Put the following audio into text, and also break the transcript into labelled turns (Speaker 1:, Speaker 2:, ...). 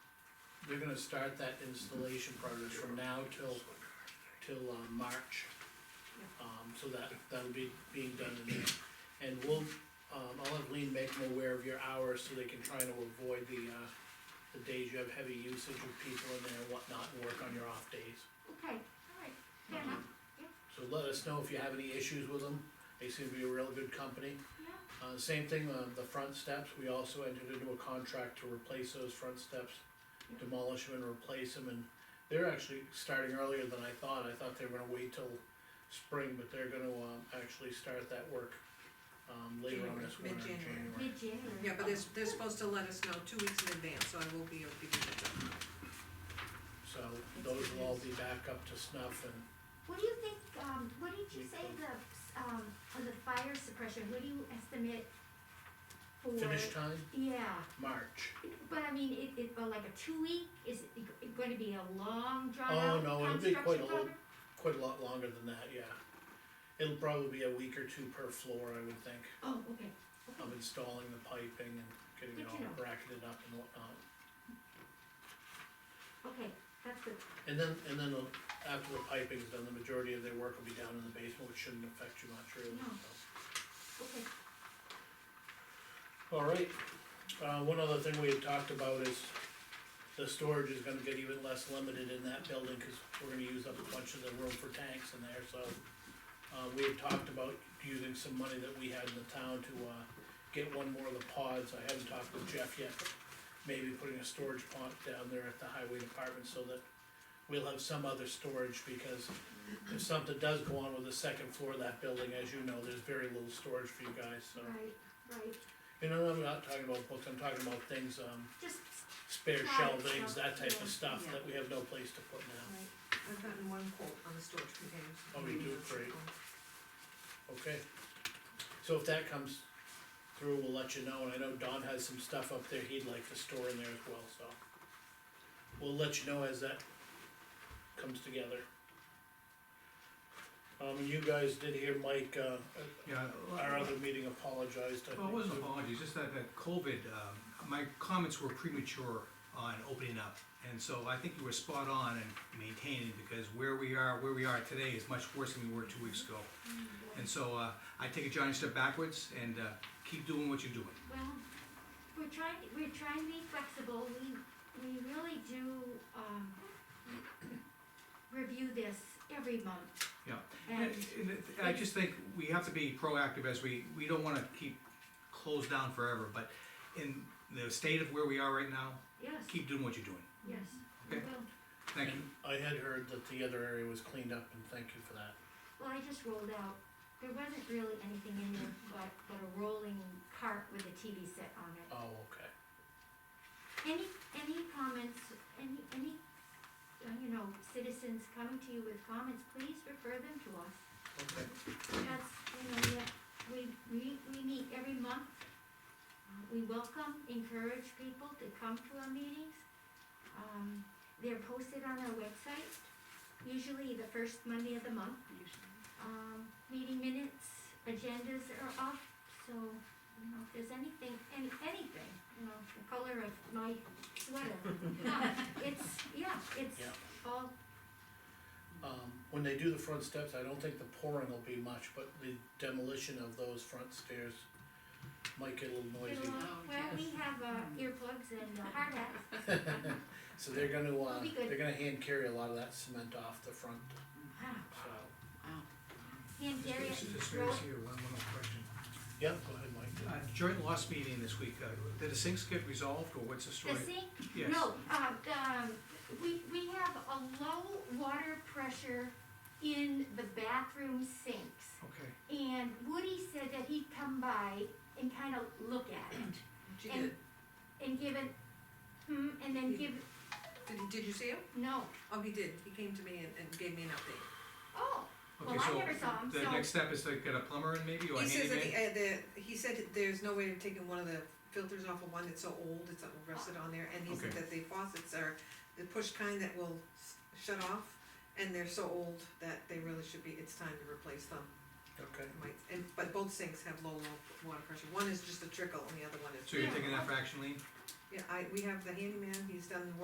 Speaker 1: they're gonna start that installation process from now till, till, uh, March. Um, so that, that'll be being done in there, and we'll, um, I'll have Lean make them aware of your hours, so they can try to avoid the, uh, the days you have heavy usage with people in there and whatnot, and work on your off days.
Speaker 2: Okay, alright, fair enough,
Speaker 1: So let us know if you have any issues with them, they seem to be a real good company.
Speaker 2: yeah,
Speaker 1: Uh, same thing, uh, the front steps, we also entered into a contract to replace those front steps, demolish them and replace them, and they're actually starting earlier than I thought, I thought they were gonna wait till spring, but they're gonna, um, actually start that work, um, later on this winter, in
Speaker 3: Mid-January.
Speaker 1: January.
Speaker 2: mid-January.
Speaker 3: Yeah, but they're, they're supposed to let us know two weeks in advance, so I will be able to do the job.
Speaker 1: So those will all be back up to snuff and
Speaker 2: What do you think, um, what did you say the, um, for the fire suppression, what do you estimate for?
Speaker 1: finish time,
Speaker 2: Yeah,
Speaker 1: March.
Speaker 2: but I mean, it, it, but like a two week, is it it gonna be a long drawn
Speaker 1: Oh,
Speaker 2: out construction
Speaker 1: no, it'll be quite a
Speaker 2: project?
Speaker 1: Quite a lot longer than that, yeah. It'll probably be a week or two per floor, I would think,
Speaker 2: Oh, okay,
Speaker 1: of installing the piping and getting it
Speaker 2: Good to
Speaker 1: all
Speaker 2: know.
Speaker 1: bracketed up and whatnot.
Speaker 2: okay, that's good,
Speaker 1: And then, and then uh, after the piping's done, the majority of their work will be down in the basement, which shouldn't affect you much really.
Speaker 2: No.
Speaker 1: so.
Speaker 2: okay,
Speaker 1: All right, uh, one other thing we had talked about is the storage is gonna get even less limited in that building, cause we're gonna use up a bunch of the room for tanks in there, so. Uh, we had talked about using some money that we had in the town to, uh, get one more of the pods, I haven't talked with Jeff yet, but maybe putting a storage pond down there at the highway department so that we'll have some other storage, because if something does go on with the second floor of that building, as you know, there's very little storage for you guys, so.
Speaker 2: right, right,
Speaker 1: You know, I'm not talking about books, I'm talking about things, um,
Speaker 2: just,
Speaker 1: spare
Speaker 2: Right,
Speaker 1: shelvings,
Speaker 2: yeah,
Speaker 1: that type
Speaker 2: yeah,
Speaker 1: of stuff
Speaker 3: yeah.
Speaker 1: that we have no place to put now,
Speaker 3: Right. I've gotten one quote on the storage containers.
Speaker 1: Oh, you do? Great. okay? So if that comes through, we'll let you know, and I know Don has some stuff up there he'd like to store in there as well, so. We'll let you know as that comes together. Um, you guys did hear Mike, uh, at
Speaker 4: Yeah.
Speaker 1: our other meeting apologized, I think.
Speaker 4: Well, it wasn't
Speaker 1: so.
Speaker 4: apologies, just that, that COVID, um, my comments were premature on opening up. And so I think you were spot on in maintaining, because where we are, where we are today is much worse than we were two weeks ago. And so, uh, I take a giant step backwards and, uh, keep doing what you're doing.
Speaker 2: well, we're trying, we're trying to be flexible, we, we really do, um, review this every month.
Speaker 4: Yeah.
Speaker 2: And,
Speaker 4: And and it- I just think we have to be proactive as we, we don't wanna keep closed down forever, but in the state of where we are right now,
Speaker 2: yes,
Speaker 4: keep doing what you're doing.
Speaker 2: yes, we
Speaker 4: Okay.
Speaker 2: will.
Speaker 4: Thank you.
Speaker 1: And I had heard that the other area was cleaned up, and thank you for that.
Speaker 2: Well, I just rolled out, there wasn't really anything in there but, but a rolling cart with a TV set on it.
Speaker 1: Oh, okay.
Speaker 2: Any, any comments, any, any, uh, you know, citizens coming to you with comments, please refer them to us.
Speaker 1: Okay,
Speaker 2: That's, you know, that we, we, we meet every month. Uh, We welcome, encourage people to come to our meetings. Um, they're posted on our website, usually the first Monday of the month. Um, meeting minutes, agendas are up, so, you know, if there's anything, any, anything, you know, the color of my sweater. Uh, It's, yeah, it's
Speaker 1: Yeah.
Speaker 2: all,
Speaker 1: um, when they do the front steps, I don't think the pouring will be much, but the demolition of those front stairs might get a little
Speaker 2: it'll,
Speaker 1: noisy.
Speaker 2: all- well, we have, uh, earplugs and uh, hard hats.
Speaker 1: So they're gonna, uh,
Speaker 2: It'll be good.
Speaker 1: they're gonna hand carry a lot of that cement off the front,
Speaker 2: Ah,
Speaker 1: so.
Speaker 2: Hand carry
Speaker 4: This is
Speaker 2: it,
Speaker 4: just
Speaker 2: roll
Speaker 4: raised here, one little question.
Speaker 1: Yeah, go ahead, Mike.
Speaker 4: Uh, Joint loss meeting this week, uh, did the sinks get resolved, or what's the story?
Speaker 2: The sink?
Speaker 4: Yes.
Speaker 2: No, uh, the, um, we, we have a low water pressure in the bathroom sinks.
Speaker 4: Okay,
Speaker 2: And Woody said that he'd come by and kind of look at it
Speaker 3: She
Speaker 2: And-
Speaker 3: did,
Speaker 2: and give it, hmm, and then give,
Speaker 3: did, he- did you see him?
Speaker 2: no.
Speaker 3: Oh, he did, he came to me and, and gave me an update.
Speaker 2: Oh, well,
Speaker 4: okay,
Speaker 2: I
Speaker 4: so
Speaker 2: never saw him,
Speaker 4: the next
Speaker 2: so,
Speaker 4: step is to get a plumber in maybe, or a
Speaker 3: He says that,
Speaker 4: handyman?
Speaker 3: the- uh, the, he said that there's no way of taking one of the filters off of one that's so old, it's not rusted on there, and he said
Speaker 4: Okay.
Speaker 3: that the faucets are the push kind that will s- shut off, and they're so old that they really should be, it's time to replace them.
Speaker 1: Okay.
Speaker 3: It might- And, but both sinks have low, low water pressure, one is just a trickle and the other one is.
Speaker 4: So you're
Speaker 2: Yeah.
Speaker 4: taking that for action, Lean?
Speaker 3: Yeah, I, we have the handyman, he's done the work